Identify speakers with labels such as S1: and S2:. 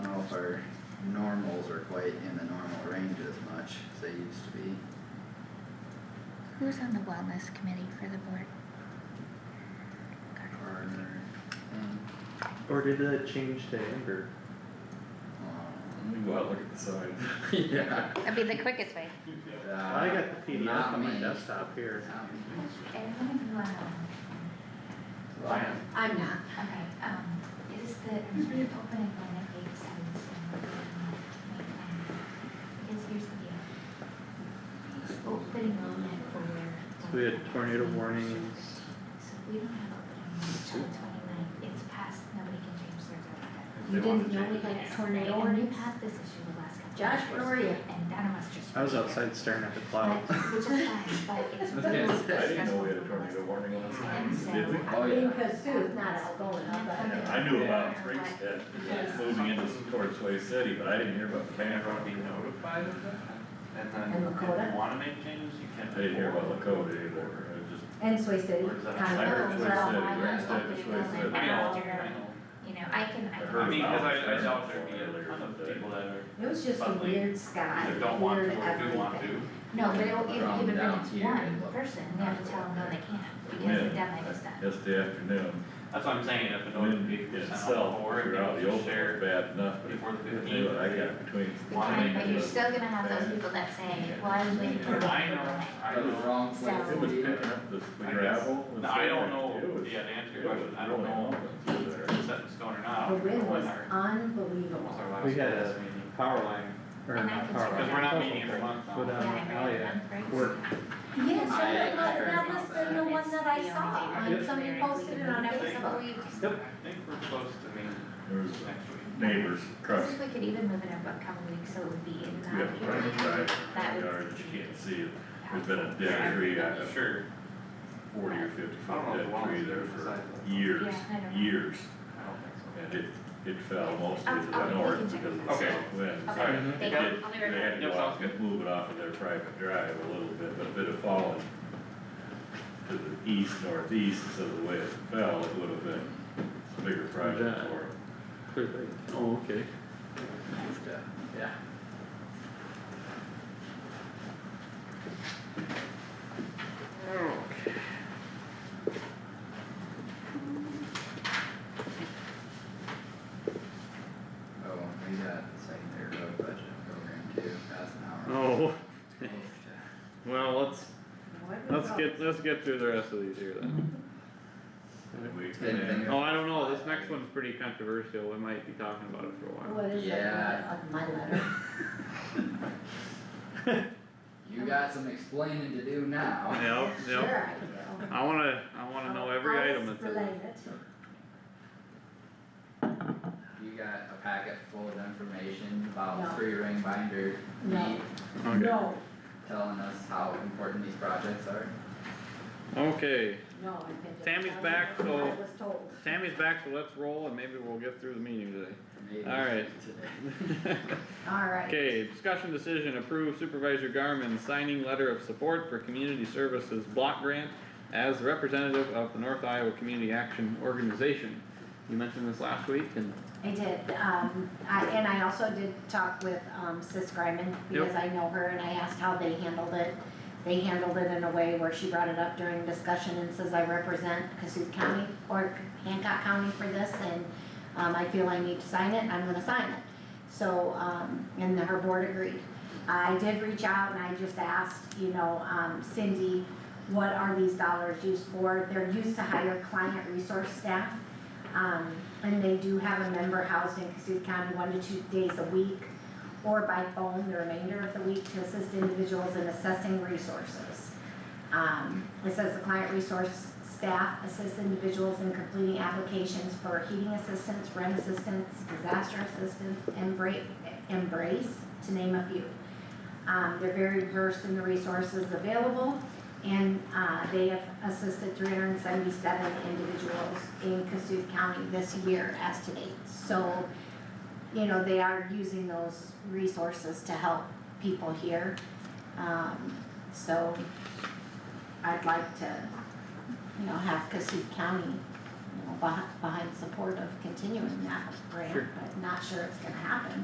S1: normals are quite in the normal range as much as they used to be.
S2: Who's on the wellness committee for the board? Okay.
S1: Gardner, and,
S3: Or did it change to Amber?
S1: um,
S4: Let me go out and look at the sign. Yeah.
S2: That'd be the quickest way.
S3: I
S1: uh,
S3: got the PDF
S1: not
S3: on my
S1: me.
S3: desktop here.
S5: Anyone of you are,
S1: Lion.
S5: I'm not, okay, um, is the reopening one at eight seventeen? Because here's the deal. Opening on at four.
S3: So we had tornado warnings.
S5: So if we don't have opening on July twenty-ninth, it's passed, nobody can change their vote.
S4: They
S5: You
S4: want
S5: didn't
S4: to
S5: know
S4: change
S5: we
S4: it.
S5: had a
S6: Tornado
S5: And we've
S6: warnings?
S5: had this issue the last couple of years.
S6: Josh, where were you?
S5: And none of us just.
S3: I was outside staring at the clouds.
S5: But, which is fine, but it's
S1: I didn't
S5: really
S4: I didn't know
S5: stressful
S4: we had a
S5: for us.
S4: tornado warning last
S5: And
S4: time,
S5: so.
S4: did we?
S1: Oh, yeah.
S6: Because Sue's not out going up, but
S4: Yeah, I knew about Springstead,
S1: Yeah.
S4: moving into towards Sway City, but I didn't hear about the banner.
S7: Everyone be notified of that? And then,
S6: And
S7: if
S6: Lakota?
S7: you wanna make changes, you can.
S4: I didn't hear about Lakota either, I just,
S6: and Soy City,
S7: Where's that?
S6: kind
S4: I heard
S6: of,
S4: Soy
S6: they're all
S4: City,
S6: lined up.
S4: Granstead, Soy City.
S7: I know,
S6: Yeah.
S7: I know.
S5: You know, I can, I
S4: I
S5: can.
S4: heard
S7: I mean, cause
S4: about
S7: I, I
S4: it
S7: doubt there'd be
S4: earlier
S7: a ton of
S4: today.
S7: people that are,
S6: It was just a
S7: Suddenly,
S6: weird sky,
S7: either
S6: weird everything.
S7: don't want to or do want to.
S5: No, but it'll,
S1: From
S5: even, even when
S1: down
S5: it's
S1: here,
S5: one
S1: look.
S5: person, we have to tell them, no, they can't, because the
S4: Wind,
S5: deadline is done.
S4: yesterday afternoon,
S7: That's what I'm saying, if it would
S4: wind
S7: be percent
S4: itself,
S7: off
S4: if
S7: or if
S4: you're out in the
S7: you just
S4: open,
S7: share.
S4: was bad enough, but
S7: before the
S4: if they would, I got between.
S5: You can, but you're
S4: It
S5: still gonna have those people that say, well, I was waiting for. the
S7: I know,
S5: deadline."
S7: I
S1: That was
S7: know.
S1: wrong place to
S5: So-
S4: was
S1: be.
S4: picking up the the
S7: I guess-
S4: gravel. and
S7: No, I don't
S4: stuff. It
S7: know,
S4: was-
S7: yeah, to answer
S4: it
S7: your question,
S4: was
S7: I don't
S4: really
S7: know
S4: awful
S7: if
S4: there.
S7: it's set in stone or not.
S6: The wind was
S7: When our-
S6: unbelievable.
S7: was our last
S3: We had
S7: last
S3: a
S7: meeting.
S3: power line, or
S5: And I
S3: not
S5: can
S3: power
S5: check
S3: line.
S5: it
S7: Cause we're not
S3: telephone
S7: meeting every
S3: pole
S7: month now.
S3: Go down
S5: Yeah, I
S3: an
S5: know,
S4: Oh,
S3: alley
S5: I'm
S3: and
S5: afraid
S3: work.
S5: so.
S1: I- I
S6: Yes, that, mu- that
S1: heard
S6: must
S1: about
S6: have been the
S1: that.
S6: one that I
S5: It's the
S6: saw,
S5: only
S3: Yep.
S6: on
S5: day
S6: somebody
S5: where we
S6: posted it
S5: can
S6: on
S5: do
S7: it.
S6: Facebook.
S3: Yep.
S7: I think we're close to meeting
S4: There was
S7: next week.
S4: neighbors
S5: This
S4: crushed.
S5: is, we could even move it up a couple weeks, so it would be in the.
S4: We have a private drive
S5: That
S4: in the
S5: would
S4: yard that you can't see. There's
S5: Yeah.
S4: been a dead tree, a
S7: Sure,
S4: forty or fifty
S7: I don't know
S4: foot
S7: if it
S4: dead
S7: belongs
S4: tree
S7: to
S4: there
S7: the side,
S4: for
S7: but-
S4: years,
S5: Yeah, I don't know.
S4: years.
S7: I don't think so.
S4: And it, it fell mostly
S5: I'll-
S4: to
S5: I'll-
S4: the
S5: we can
S4: north
S5: check
S4: because of
S5: it
S4: the
S7: out. Okay.
S4: south wind.
S5: Okay.
S7: Sorry.
S3: Mhm.
S4: They-
S5: Thank you. I'll be right
S4: They
S5: back.
S4: had to
S7: Yep,
S4: walk,
S7: sounds good.
S4: move it off of their private drive a little bit, but if it had fallen to the east, northeast, so the way it fell, it would have been a bigger project
S3: Yeah.
S4: for them.
S3: Clearly. Oh, okay.
S1: Moved up.
S3: Yeah.
S1: Oh, we got secondary road budget program too, that's an hour.
S3: Oh,
S1: Moved up.
S3: well, let's, let's get, let's get through the rest of these here
S5: Mm-hmm.
S3: then.
S4: And we-
S1: Anything
S3: Oh, I don't know, this next one's pretty controversial, we might be talking about it for a while.
S6: What is that,
S1: Yeah.
S6: on my letter?
S1: You got some explaining to do now.
S3: Yep, yep,
S6: Sure, I do.
S3: I wanna, I wanna know every
S6: I'll
S3: item that's in
S6: explain
S3: it.
S6: it.
S1: You got a packet full of information about
S6: No.
S1: three ring binder,
S6: No.
S1: meat,
S3: Okay,
S6: No,
S1: telling us how important these projects are.
S3: okay,
S6: no, I can just.
S3: Tammy's
S6: tell you
S3: back,
S6: what
S3: so-
S6: I was told.
S3: Tammy's back, so let's roll and maybe we'll get through the meeting today.
S1: Maybe
S3: Alright.
S1: today.
S6: Alright.
S3: Okay, discussion decision, approve Supervisor Garmin signing letter of support for community services block grant as representative of the North Iowa Community Action Organization. You mentioned this last week and,
S6: I did, um, I, and I also did talk with, um, Sis Griman, because I know her, and I asked how they handled it. They handled it in a way where she brought it up during discussion and says, I represent Cassuth County or Hancock County for this, and, um, I feel I need to sign it, I'm gonna sign it. So, um, and her board agreed. I did reach out and I just asked, you know, um, Cindy, what are these dollars used for? They're used to hire client resource staff. Um, and they do have a member housed in Cassuth County one to two days a week or by phone the remainder of the week to assist individuals in assessing resources. Um, it says the client resource staff assists individuals in completing applications for heating assistance, rent assistance, disaster assistance, embrace, embrace, to name a few. Um, they're very versed in the resources available and, uh, they have assisted three hundred and seventy-seven individuals in Cassuth County this year as to date. So, you know, they are using those resources to help people here. Um, so I'd like to, you know, have Cassuth County, you know, behind, behind support of continuing that grant,
S3: Sure.
S6: but not sure it's gonna happen.